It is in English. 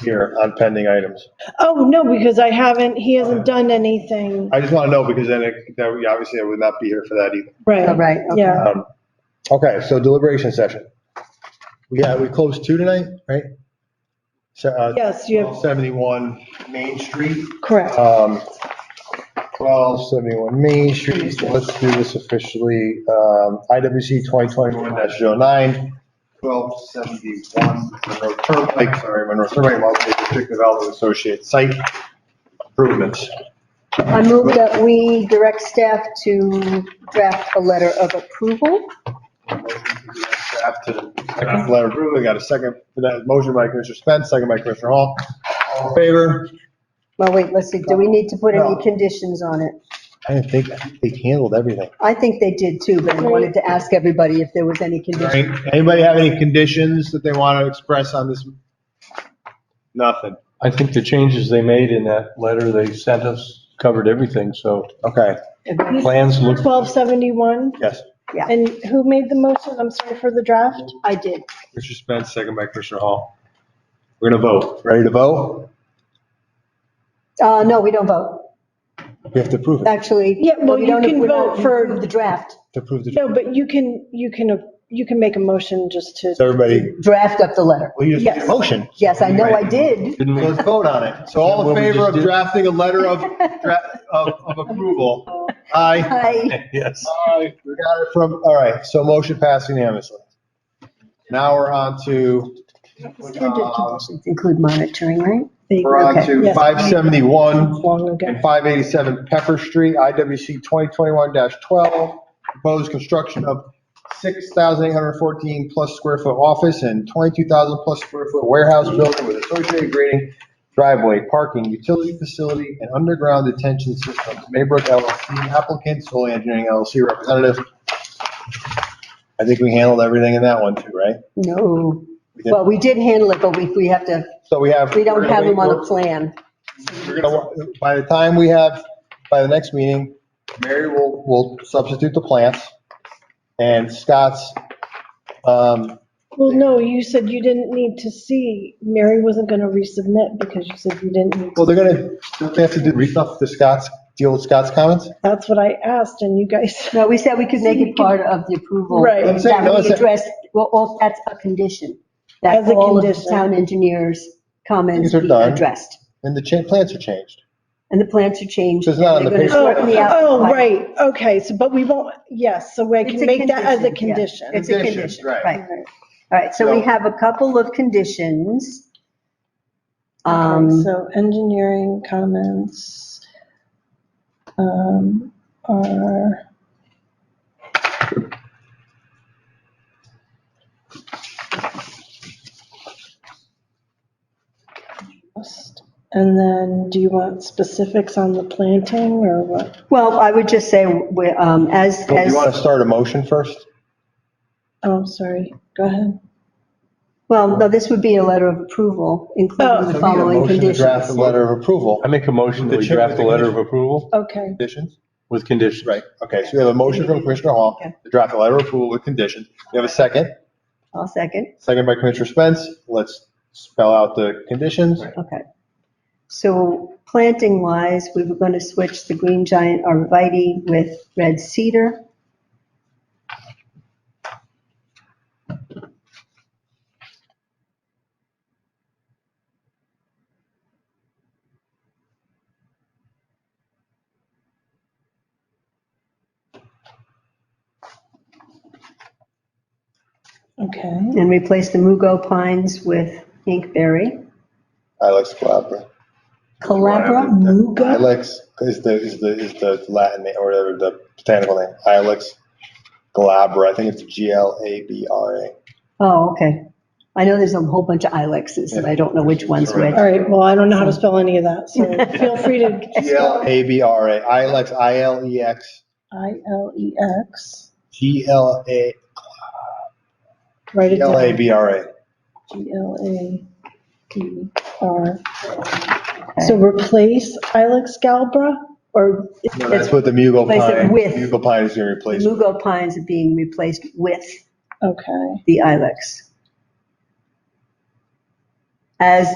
here on pending items? Oh, no, because I haven't, he hasn't done anything. I just want to know because then it, that we- obviously I would not be here for that either. Oh, Right, Right. okay. yeah. Um, Okay, so deliberation session. We got, we closed two tonight, right? So, uh, Yes, you have, 71 Main Street. correct. Um, 1271 Main Street, so let's do this officially. Um, IWC 2021-09, 1271 Monroe Turnpike, sorry, Monroe Turnpike, Marlboro District Development Associate Site Improvements. I move that we direct staff to draft a letter of approval. Draft to- draft Letter of approval, we got a second for that. Motion by Commissioner Spence, second by Commissioner Hall. All in favor? Well, wait, let's see, do we need to put No. any conditions on it? I didn't think, I think they handled everything. I think they did too, but I wanted to ask everybody if there was any condition. Right. Anybody have any conditions that they want to express on this? Nothing. I think the changes they made in that letter they sent us covered everything, so Okay, plans look, 1271, yes. and who made the motion? I'm sorry for the draft. I did. Commissioner Spence, second by Commissioner Hall. We're going to vote. Ready to vote? Uh, no, we don't vote. We have to prove it, Actually. Yeah, well, we you don't- can we're not- vote for- approve The draft, to prove the, No, but you can, you can, you can make a motion just to, so everybody, draft up the letter. well, you just made a Yes. motion. Yes, I know I did. didn't So we? let's vote on it. So all in favor of drafting a letter of, dra- of, of approval? Aye. I, Yes. Aye. We got it from, all right, so motion passed unanimously. Now we're on to, standard conditions include monitoring, right? we're on Okay, to yes. 571. long ago. and 587 Pepper Street, IWC 2021-12, proposed construction of 6,814 plus square foot office and 22,000 plus square foot warehouse building with associated grading, driveway, parking, utility facility, and underground detention systems. Maybrook LLC applicant, Solely Engineering LLC representative. I think we handled everything in that one too, right? No. We did. Well, we did handle it, but we, we have to, So we have. we don't have them on a We're- plan. We're gonna, by the time we have, by the next meeting, Mary will, will substitute the plants and Scott's, um, Well, no, you said you didn't need to see, Mary wasn't going to resubmit because you said you didn't need well, to. they're gonna, don't they have to do stuff to Scott's, deal with Scott's comments? That's what I asked and you guys, No, we said we could make it part of the approval. Right. I'm saying, no, That it's we a- address, well, all- that's a condition. As That a all of the condition. town engineers' comments These are be done. addressed. And the cha, plants are changed. And the plans are changed. So it's not on and the they're gonna oh, paper. shorten the out- oh, right, okay, so, but we won't, yes, so I It's can a make that as a condition, yeah. condition. It's a Condition, condition, right. right. All right, so we So- have a couple of conditions. Okay, Um, So engineering comments um, are. And then do you want specifics on the planting or what? Well, I would just say, we- um, as, Do you wanna as, start a motion first? Oh, sorry, go ahead. well, no, this would be a letter of approval, Oh. including So the we need a following motion to Draft a conditions. letter of approval. I make a motion that we draft the letter of approval Okay, Conditions? with conditions. Right, okay, so we have a motion from Commissioner Hall Okay. to draft a letter of approval with conditions. We have a second, I'll second. second by Commissioner Spence. Let's spell out the conditions. Okay. So planting wise, we were going to switch the green giant arborvitae with red cedar. okay. and replace the mugo pines with inkberry. Alex Calabro. Calabra, Muga? Ilex is the, is the, is the Latin name or the- the botanical name. Ilex glabra. I think it's G L A B R A. oh, okay. I know there's a whole bunch of ilexes, and I don't know which one's which. All right, well, I don't know how to spell any of that, so feel free to. G L A B R A. Ilex, I L E X, I L E X, G L A, write it G down. L A B R A. G L A D R. So replace Ilex galbra or? No, That's what the Mugo Place it pine, with- Mugo pine is gonna The replace. mugo pines are being replaced with Okay. the ilex. As